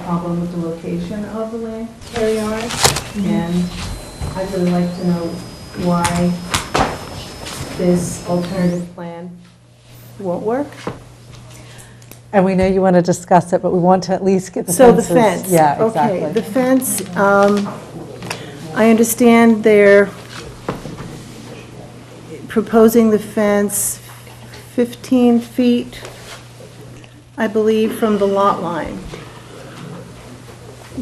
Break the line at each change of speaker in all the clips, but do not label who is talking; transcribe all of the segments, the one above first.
problem with the location of the land care yard, and I'd really like to know why this alternative plan won't work.
And we know you want to discuss it, but we want to at least get the
So the
fences.
fence?
Yeah,
Okay, the
exactly.
fence, um, I understand they're proposing the fence 15 feet, I believe, from the lot line.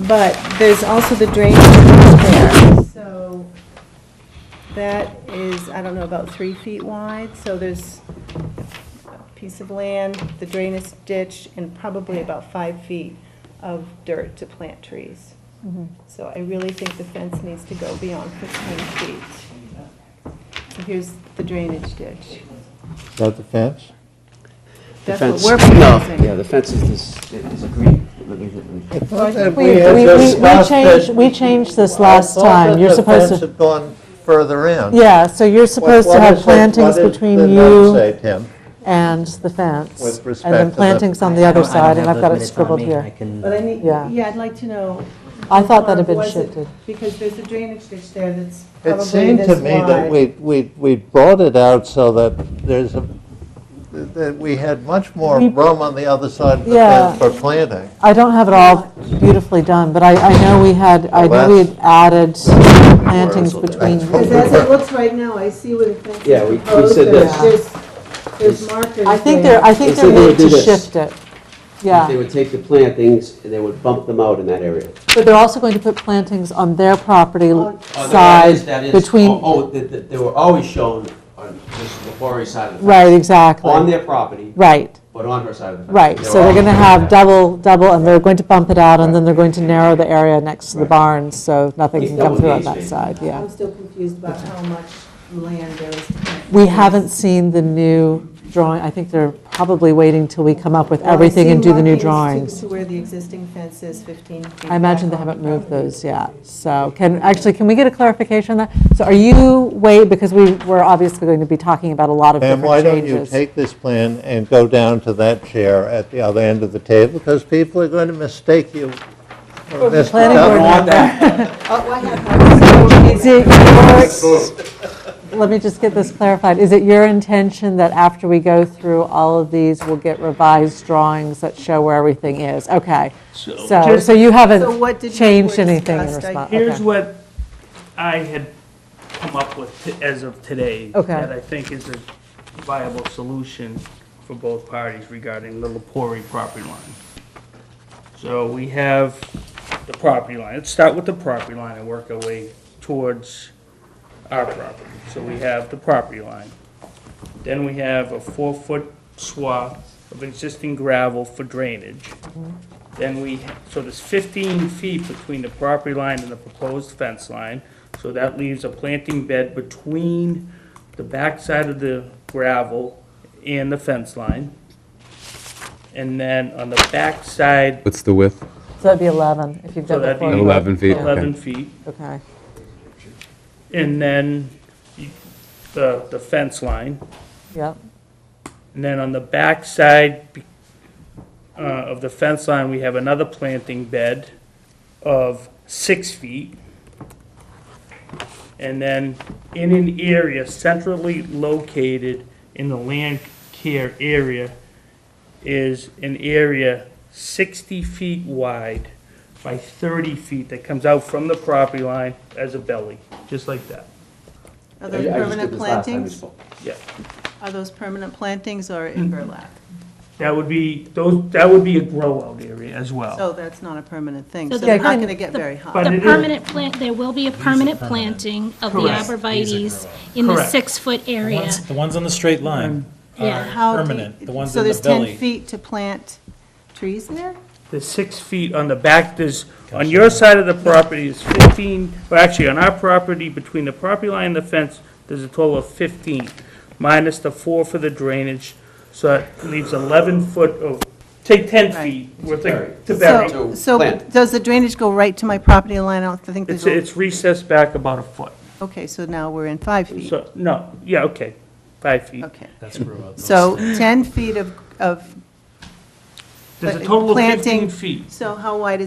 But there's also the drainage there, so that is, I don't know, about three feet wide, so there's a piece of land, the drainage ditch, and probably about five feet of dirt to plant trees. So I really think the fence needs to go beyond 15 feet. So here's the drainage ditch.
Is that the fence?
That's what
fence-
we're
no,
proposing.
Yeah, the fence is this, is green. Let me- let me-
I thought that
We,
had
we- we- we
discussed
changed,
that-
we changed this
I
last
thought
time.
that
You're
the
supposed
fence
to,
had gone further in.
yeah, so you're supposed to
What- what
have
is it-
plantings
what is the
between
note
you
say, Tim?
and the fence.
With respect
And
to
then
the-
plantings on the
I
other
don't- I don't
side, and
have
I've got
those
it
minutes on
scribbled
me.
here.
I can-
But I need,
Yeah.
yeah, I'd like to know.
I thought that had
how
been
far was it?
shifted.
Because there's a drainage ditch there that's
It
probably
seemed to
this
me that we,
wide.
we, we brought it out so that there's a, that we had much more
We-
room on the other side of the
Yeah.
fence for planting.
I don't have it all beautifully done, but I, I know we had, I
Well,
know we had added plantings
that's-
between.
Because as it looks right now, I see where the fence is
Yeah, we- we
proposed.
said
There's-
that.
There's, there's markers
I think
there.
they're, I think
They
they're
said they would
made to
do this.
shift it.
They
Yeah,
would take the plantings and they would bump them out in that area.
but they're also going to put plantings on their property
On-
side
Oh,
between,
oh, that- that they were always shown on just the quarry side of the fence.
right, exactly.
On their property,
Right,
but on her side of the fence.
right.
They
So
were
they're going to
always
have
shown
double, double, and they're going to bump it out, and then
Right.
they're going to narrow the area next to the
Right.
barns, so nothing
It's
can come
double
through on
gauge,
that
maybe.
side, yeah.
I'm still confused about how much land there is. to plant
We
trees.
haven't seen the new drawing. I think they're probably waiting till we come up with
Well, I've
everything and
seen
do the new
markings to-
drawings.
To where the existing fence is 15 feet.
I imagine they
back on
haven't
the
moved
property.
those yet. So can, actually, can we get a clarification on that? So are you, wait, because we were obviously going to be talking about a lot of
And why
different
don't you
changes.
take this plan and go down to that chair at the other end of the table? Because people are going to mistake you for Mr.
planning
Duff.
board
I want that.
Oh, I have that.
Is it your, let me just get this clarified. Is it your intention that after we go through all of these, we'll get revised drawings that show where everything is? Okay. So, so you
So what
haven't
did you
changed
were
anything in
discussed? I-
response?
Here's
Uh, okay.
what I had come up with t- as of today.
Okay.
That I think is a viable solution for both parties regarding the Lepori property line. So we have the property line. Let's start with the property line and work our way towards our property. So we have the property line. Then we have a four-foot swath of existing gravel for drainage. Then we, so there's 15 feet between the property line and the proposed fence line. So that leaves a planting bed between the backside of the gravel and the fence line. And then on the backside,
What's the width?
So that'd be 11, if you've done
so
the
that'd be.
40.
11 feet, okay.
11 feet.
Okay.
And then you- the, the fence line.
Yep.
And then on the backside be- uh, of the fence line, we have another planting bed of six feet. And then in an area centrally located in the land care area is an area 60 feet wide by 30 feet that comes out from the property line as a belly, just like that.
Are
I- I
those
just did
permanent
this last time we
plantings?
spoke.
Yeah.
Are those permanent plantings or in burlap?
That would be, those, that would be a grow-out area as
Oh.
well.
So that's not a permanent thing, so
So the
they're not
permanent-
going to get very hot.
But
The
it is-
permanent plant, there will be a permanent planting of the
Correct.
arborvitae's in the
Correct.
six-foot
The
area.
ones- The ones on the straight line are
Yeah.
How deep-
permanent, the ones
So
in the
there's 10
belly.
feet to plant trees there?
There's six feet on the back, there's, on your side of the property is 15, or actually, on our property, between the property line and the fence, there's a total of 15, minus the four for the drainage, so that leaves 11 foot of, take 10
Right.
feet worth of, to bury.
So,
To
so
plant.
does the drainage go right to my property line? I don't think
It's,
there's, a-
it's recessed back about a foot.
okay, so now we're in five feet.
So, no, yeah, okay, five feet.
Okay,
That's where it's-
so 10 feet of, of,
There's a
but
total of
planting-
15 feet.
so how wide is